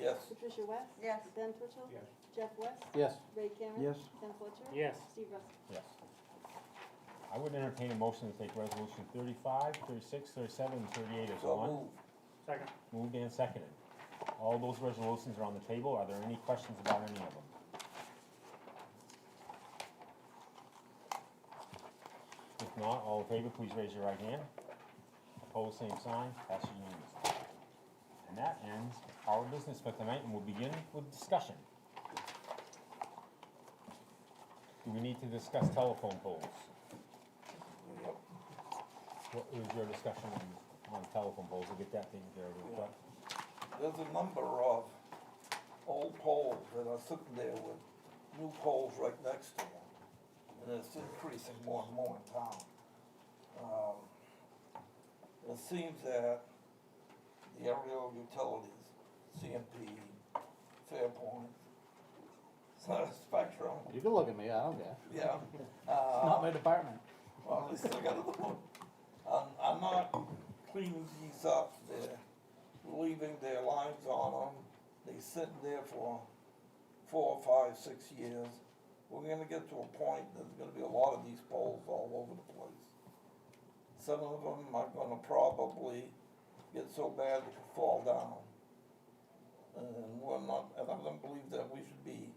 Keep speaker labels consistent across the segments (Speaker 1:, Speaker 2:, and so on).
Speaker 1: Yes.
Speaker 2: Patricia West.
Speaker 3: Yes.
Speaker 2: Ben Twitchell.
Speaker 4: Yes.
Speaker 2: Jeff West.
Speaker 5: Yes.
Speaker 2: Ray Cameron.
Speaker 5: Yes.
Speaker 2: Ken Fletcher.
Speaker 4: Yes.
Speaker 2: Steve Russell.
Speaker 6: Yes. I would entertain a motion to take resolution 35, 36, 37, and 38 as
Speaker 1: So
Speaker 6: one.
Speaker 1: moved.
Speaker 4: Second.
Speaker 6: Moved and seconded. All those resolutions are on the table. Are there any questions about any of them? If not, all in favor, please raise your right hand. Opposed, same sign. Passes unanimously. And that ends our business for tonight, and we'll begin with discussion. Do we need to discuss telephone poles? What was your discussion on, on telephone poles? We'll get that taken care of real quick.
Speaker 1: There's a number of old poles that are sitting there with new poles right next to them. And it's increasing more and more in town. Um, It seems that the aerial utilities, CMP, Fairpoint, Spectrum,
Speaker 5: You can look at me, I don't care.
Speaker 1: yeah.
Speaker 5: Not
Speaker 1: uh,
Speaker 5: my department.
Speaker 1: Well, at least I got another one. I'm, I'm not cleaning these up, they're leaving their lines on them, they sit there for four, five, six years. We're gonna get to a point, there's gonna be a lot of these poles all over the place. Some of them are gonna probably get so bad they could fall down. And we're not, and I don't believe that we should be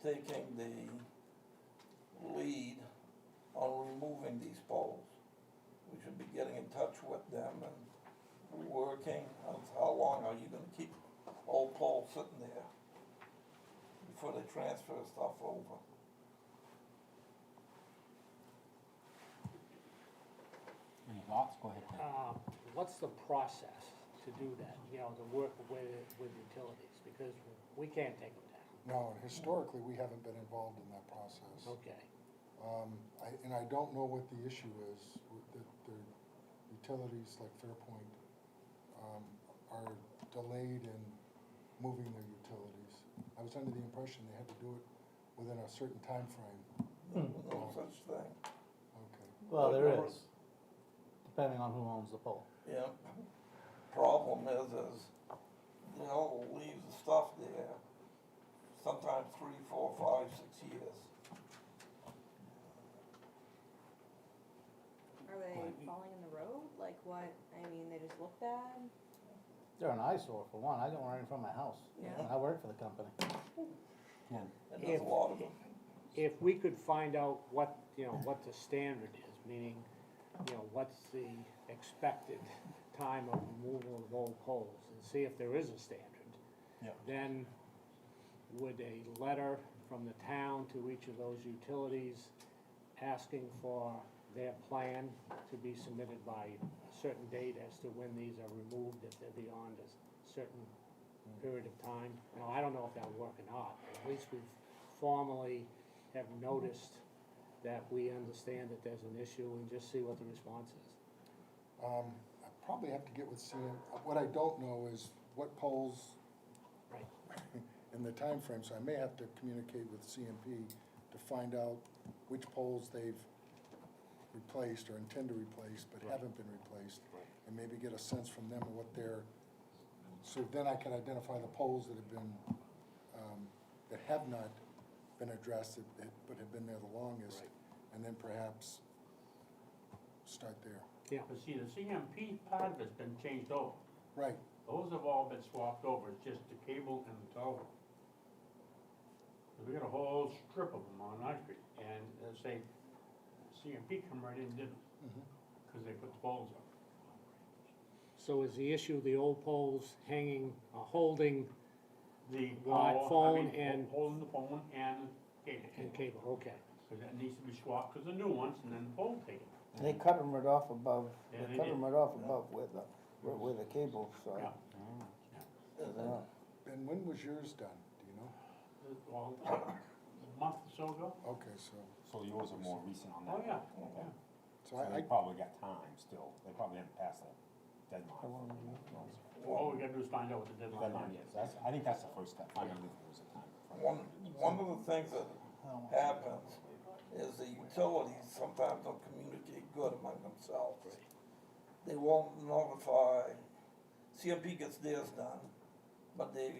Speaker 1: taking the lead on removing these poles. We should be getting in touch with them and working, on how long are you gonna keep old poles sitting there before they transfer stuff over?
Speaker 6: Any thoughts? Go ahead. Ken.
Speaker 4: Um, what's the process to do that, you know, to work with, with utilities? Because we can't take them down,
Speaker 7: No, and historically, we haven't been involved in that process.
Speaker 4: okay?
Speaker 7: Um, I, and I don't know what the issue is, with the, the utilities like Fairpoint, um, are delayed in moving their utilities. I was under the impression they had to do it within a certain time frame.
Speaker 1: No such thing,
Speaker 7: okay.
Speaker 5: Well, there is, depending on who owns the pole.
Speaker 1: yeah. Problem is, is they'll leave the stuff there sometimes three, four, five, six years.
Speaker 3: Are they falling in the road? Like what? I mean, they just look bad?
Speaker 5: They're an eyesore for one, I don't want it in front of my house.
Speaker 3: Yeah.
Speaker 5: I work for the company.
Speaker 6: Ken.
Speaker 1: And there's a lot of them.
Speaker 4: If we could find out what, you know, what the standard is, meaning, you know, what's the expected time of removal of old poles, and see if there is a standard.
Speaker 6: Yeah.
Speaker 4: then would a letter from the town to each of those utilities asking for their plan to be submitted by a certain date as to when these are removed, if they're beyond a certain period of time? Now, I don't know if that'll work or not, but at least we've formally have noticed that we understand that there's an issue and just see what the response is.
Speaker 7: Um, I probably have to get with CM, what I don't know is what polls
Speaker 4: Right.
Speaker 7: in the time frame, so I may have to communicate with CMP to find out which poles they've replaced or intend to replace, but haven't been replaced. And maybe get a sense from them of what their, so then I can identify the poles that have been, um, that have not been addressed, that- that- but have been there the longest.
Speaker 4: Right.
Speaker 7: And then perhaps start there.
Speaker 4: Yeah,
Speaker 8: But see, the CMP part of it's been changed over.
Speaker 7: Right,
Speaker 8: Those have all been swapped over, it's just the cable and the tower. We got a whole strip of them on our street, and let's say, CMP come right in and did them,
Speaker 7: Mm-hmm.
Speaker 8: because they put the poles up.
Speaker 4: so is the issue the old poles hanging, uh, holding
Speaker 8: The
Speaker 4: Right,
Speaker 8: power- I
Speaker 4: phone
Speaker 8: mean,
Speaker 4: and-
Speaker 8: Holding the phone and
Speaker 4: and
Speaker 8: cable,
Speaker 4: cable, okay.
Speaker 8: because that needs to be swapped, because the new ones, and then the pole taken.
Speaker 9: They cut them right off above, they
Speaker 8: Yeah, they
Speaker 9: cut
Speaker 8: did.
Speaker 9: them right off above with the, with the cable, so.
Speaker 8: Yeah.
Speaker 9: yeah.
Speaker 7: and when was yours done, do you know?
Speaker 8: Well, a month or so ago?
Speaker 7: Okay, so,
Speaker 6: So yours are more recent on that?
Speaker 8: Oh, yeah,
Speaker 6: Okay.
Speaker 8: yeah.
Speaker 7: so
Speaker 6: So
Speaker 7: I,
Speaker 6: they
Speaker 7: I
Speaker 6: probably got time still. They probably haven't passed that deadline. for-
Speaker 4: Oh,
Speaker 8: All we gotta do is find out what the deadline
Speaker 6: Deadline,
Speaker 8: is.
Speaker 6: yes. That's, I think that's the first step, finding out if there was a time.
Speaker 1: One, one of the things that happens is the utilities sometimes don't communicate good among themselves. They won't notify, CMP gets theirs done, but they